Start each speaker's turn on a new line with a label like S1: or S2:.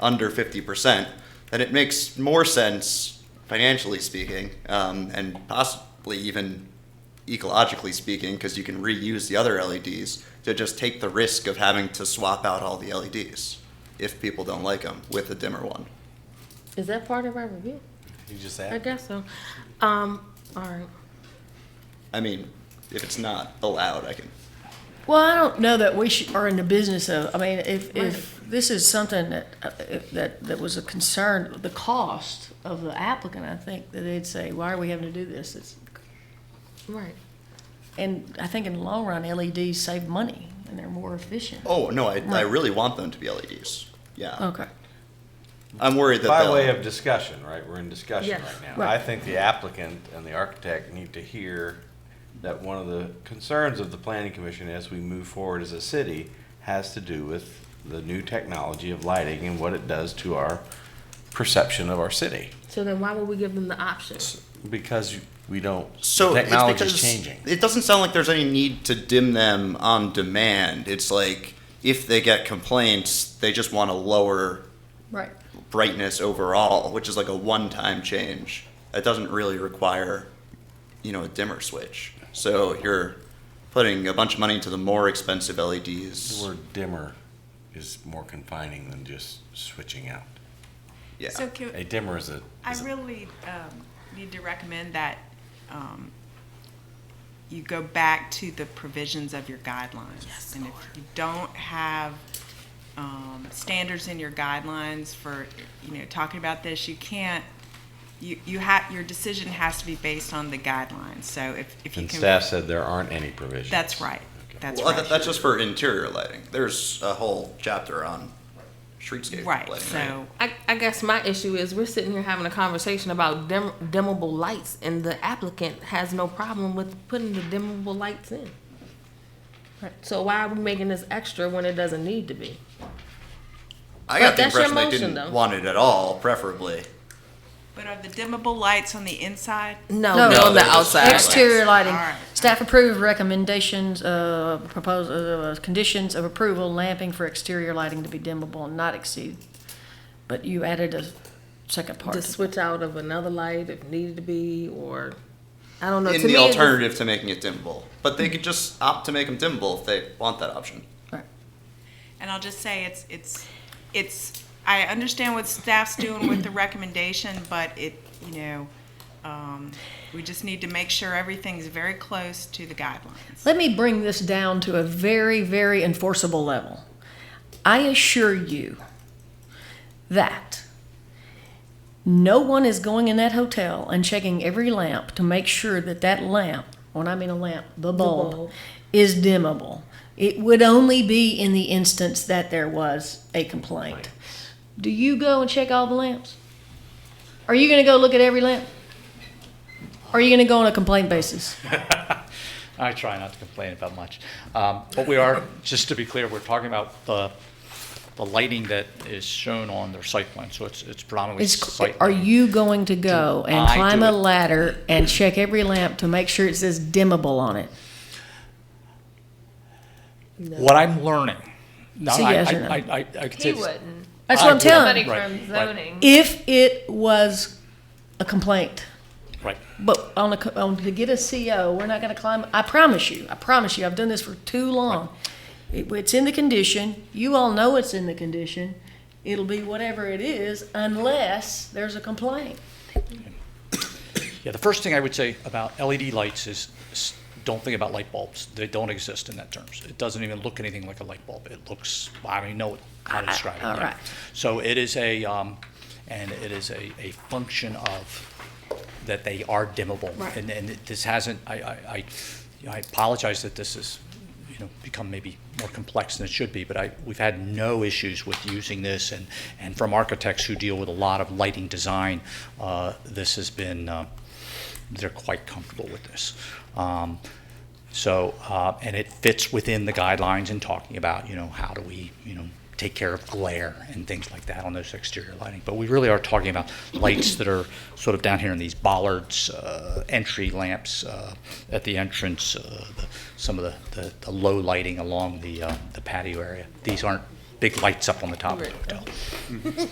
S1: under 50%, then it makes more sense, financially speaking, um, and possibly even ecologically speaking, because you can reuse the other LEDs, to just take the risk of having to swap out all the LEDs if people don't like them with a dimmer one.
S2: Is that part of our review?
S3: You just
S2: I
S3: asked.
S2: guess so. Um, all right.
S1: I mean, if it's not allowed, I can.
S4: Well, I don't know that we should, are in the business of, I mean, if, if this is something that, uh, if that, that was a concern, the cost of the applicant, I think that they'd say, why are we having to do this? It's,
S2: Right.
S4: and I think in the long run, LEDs save money and they're more efficient.
S1: Oh no, I, I
S4: Right.
S1: really want them to be LEDs. Yeah,
S4: Okay.
S1: I'm worried that
S3: By
S1: they'll-
S3: way of discussion, right, we're in discussion
S2: Yes.
S3: right now.
S4: Right.
S3: I think the applicant and the architect need to hear that one of the concerns of the planning commission as we move forward as a city has to do with the new technology of lighting and what it does to our perception of our city.
S2: So then why would we give them the option?
S3: Because we don't,
S1: so
S3: the
S1: it's
S3: technology's
S1: because
S3: changing.
S1: It doesn't sound like there's any need to dim them on demand. It's like if they get complaints, they just want a lower
S4: Right.
S1: brightness overall, which is like a one-time change. That doesn't really require, you know, a dimmer switch. So you're putting a bunch of money into the more expensive E LEDs.
S3: The word dimmer is more confining than just switching out.
S1: yeah.
S5: So can,
S3: A dimmer is a,
S5: I
S3: is a-
S5: really um, need to recommend that um, you go back to the provisions of your guidelines. And if you don't have um, standards in your guidelines for, you know, talking about this, you can't, you, you have, your decision has to be based on the guidelines. So if, if you
S3: and
S5: can.
S3: staff said there aren't any provisions.
S5: That's right. That's
S1: well, that,
S5: right.
S1: that's just for interior lighting. There's a whole chapter on streetscape
S5: Right,
S1: lighting.
S5: so,
S2: I, I guess my issue is we're sitting here having a conversation about dim, dimmable lights, and the applicant has no problem with putting the dimmable lights in. Right. So why are we making this extra when it doesn't need to be?
S1: I
S2: But
S1: got the
S2: that's your
S1: impression they didn't
S2: motion, though.
S1: want it at all, preferably.
S5: but are the dimmable lights on the inside?
S2: Oh, No,
S4: No.
S2: they're
S1: No,
S2: on the
S1: they're just-
S2: outside.
S4: Exterior lighting.
S5: All right.
S4: Staff approved recommendations, uh, propose, uh, conditions of approval, lamping for exterior lighting to be dimmable and not exceed. But you added a second part.
S2: To switch out of another light if needed to be, or I don't know.
S1: In
S2: to
S1: the
S2: me, it just-
S1: alternative to making it dimmable, but they could just opt to make them dimmable if they want that option.
S5: And I'll just say it's, it's, it's, I understand what staff's doing with the recommendation, but it, you know, um, we just need to make sure everything's very close to the guidelines.
S4: Let me bring this down to a very, very enforceable level. I assure you that no one is going in that hotel and checking every lamp to make sure that that lamp, when I mean a lamp, the bulb,
S2: bulb.
S4: is dimmable. It would only be in the instance that there was a complaint. Do you go and check all the lamps? Are you going to go look at every lamp? Are you going to go on a complaint basis?
S6: I try not to complain about much. Um, But we are, just to be clear, we're talking about the, the lighting that is shown on their site plan, so it's, it's predominantly
S4: It's,
S6: site.
S4: are
S6: lighting.
S4: you going to go
S6: Do
S4: and
S6: I
S4: climb
S6: do
S4: a
S6: it?
S4: ladder and check every lamp to make sure it says dimmable on it?
S6: What I'm learning. Now,
S4: So
S6: I-
S4: yes
S6: I-
S4: or no?
S6: I, I, I could say
S7: He
S6: this-
S7: wouldn't.
S4: That's what
S6: I
S4: I'm
S6: would.
S4: telling.
S7: Somebody
S4: you.
S6: Right,
S7: from
S6: right.
S7: zoning.
S4: If it was a complaint,
S6: Right.
S4: but on a co- on to get a CO, we're not going to climb. I promise you. I promise you. I've done this for too long. It, it's in the condition. You all know it's in the condition. It'll be whatever it is, unless there's a complaint.
S6: Yeah, the first thing I would say about LED lights is, s- don't think about light bulbs. They don't exist in that terms. It doesn't even look anything like a light bulb. It looks, I don't even know how to describe it.
S4: Ah, all
S6: yeah.
S4: right.
S6: So it is a, um, and it is a, a function of, that they are dimmable.
S4: Right.
S6: And, and this hasn't, I, I, I- you know, I apologize that this has, you know, become maybe more complex than it should be, but I, we've had no issues with using this, and, and from architects who deal with a lot of lighting design, uh, this has been, uh, they're quite comfortable with this. Um, so, uh, and it fits within the guidelines in talking about, you know, how do we, you know, take care of glare and things like that on those exterior lighting. But we really are talking about lights that are sort of down here in these bollards, uh, entry lamps uh, at the entrance, uh, the, some of the, the, the low lighting along the, uh, the patio area. These aren't big lights up on the top of the hotel.